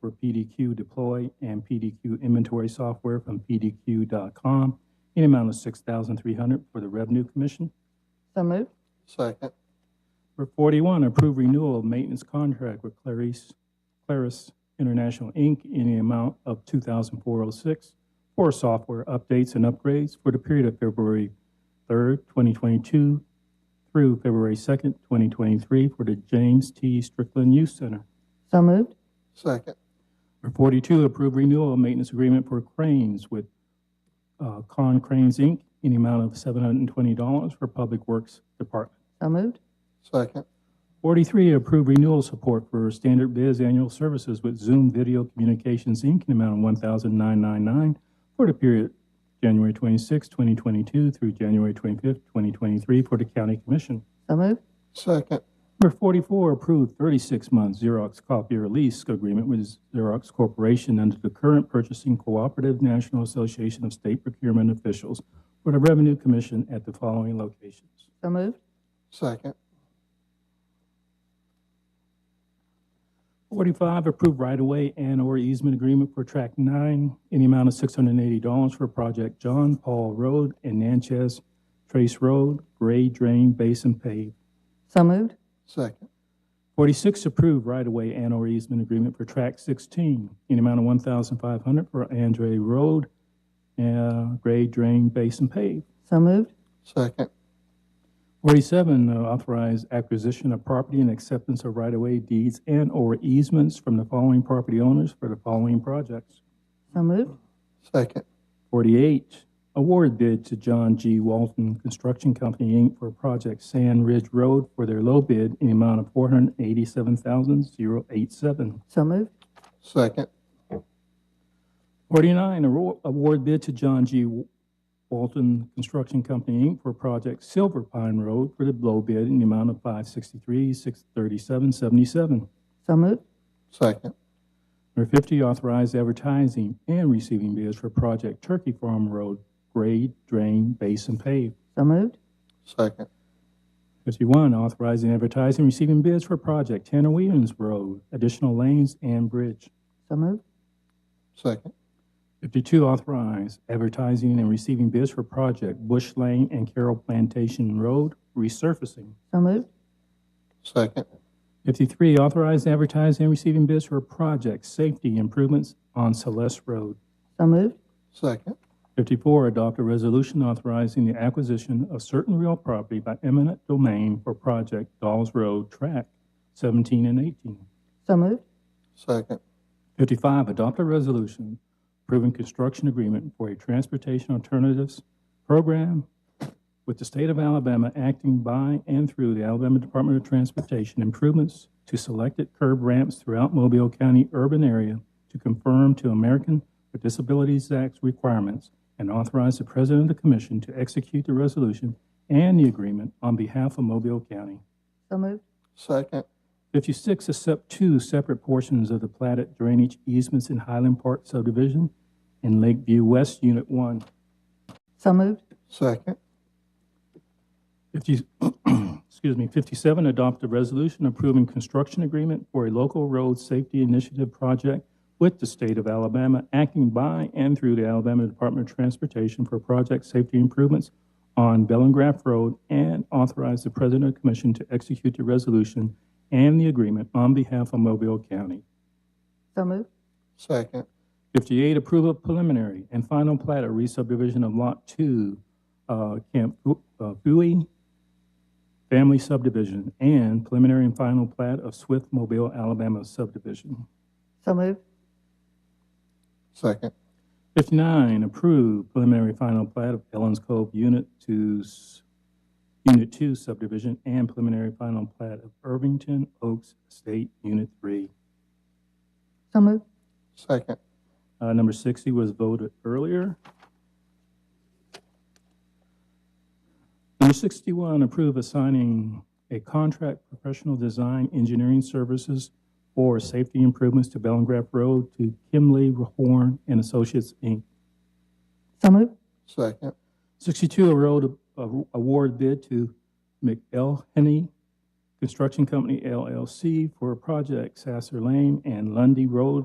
for PDQ Deploy and PDQ Inventory Software from PDQ.com in amount of $6,300 for the Revenue Commission. So moved. second, Number 41, approve renewal of maintenance contract with Clarice, Claris International, Inc. in the amount of 2406 for software updates and upgrades for the period of February 3rd, 2022 through February 2nd, 2023 for the James T. Strickland Youth Center. So moved. second, Number 42, approve renewal of maintenance agreement for cranes with uh, Con Cranes, Inc. in the amount of $720 for Public Works Department. So moved. second, 43, approve renewal support for standard biz annual services with Zoom Video Communications, Inc., in amount of $1,999 for the period January 26, 2022 through January 25, 2023 for the county commission. So moved. second, Number 44, approve 36-month Xerox copier lease agreement with Xerox Corporation under the current purchasing cooperative National Association of State Procurement Officials for the Revenue Commission at the following locations. So moved. second, 45, approve right-of-way and/or easement agreement for Track 9 in the amount of $680 for Project John Paul Road and Natchez Trace Road, Gray Drain Basin paved. So moved. second, 46, approve right-of-way and/or easement agreement for Track 16 in the amount of $1,500 for Andre Road, uh, Gray Drain Basin paved. So moved. second, 47, uh, authorize acquisition of property and acceptance of right-of-way deeds and/or easements from the following property owners for the following projects. So moved. second, 48, award bid to John G. Walton Construction Company, Inc. for project Sand Ridge Road for their low bid in the amount of $487,087. So moved. second, 49, aro- award bid to John G. Walton Construction Company, Inc. for project Silver Pine Road for the low bid in the amount of $563,637.77. So moved. second, Number 50, authorize advertising and receiving bids for project Turkey Farm Road, grade, drain, base, and pave. So moved. second, 51, authorizing advertising, receiving bids for project Tanner Williams Road, additional lanes and bridge. So moved. second, 52, authorize advertising and receiving bids for project Bush Lane and Carroll Plantation Road resurfacing. So moved. second, 53, authorize advertising and receiving bids for project safety improvements on Celeste Road. So moved. second, 54, adopt a resolution authorizing the acquisition of certain real property by eminent domain for project Dolls Road Track 17 and 18. So moved. second, 55, adopt a resolution approving construction agreement for a transportation alternatives program with the state of Alabama acting by and through the Alabama Department of Transportation improvements to selected curb ramps throughout Mobile County urban area to conform to American with Disabilities Act requirements and authorize the president of the commission to execute the resolution and the agreement on behalf of Mobile County. So moved. second, 56, accept two separate portions of the platted drainage easements in Highland Park subdivision and Lakeview West Unit 1. So moved. second, 50, excuse me, 57, adopt a resolution approving construction agreement for a local road safety initiative project with the state of Alabama, acting by and through the Alabama Department of Transportation for project safety improvements on Bellengrave Road, and authorize the president of the commission to execute the resolution and the agreement on behalf of Mobile County. So moved. second, 58, approval of preliminary and final plat of re-subdivision of Lot 2, uh, Camp Bu- uh, Bowie Family Subdivision, and preliminary and final plat of Swift Mobile, Alabama subdivision. So moved. second, 59, approve preliminary final plat of Ellen's Cove Unit 2, s- Unit 2 subdivision, and preliminary final plat of Irvington Oaks State Unit 3. So moved. second, Uh, Number 60 was voted earlier. Number 61, approve assigning a contract professional design engineering services for safety improvements to Bellengrave Road to Kimley Horn and Associates, Inc. So moved. second, 62, a road a- award bid to McElhenney Construction Company LLC for project Sasser Lane and Lundy Road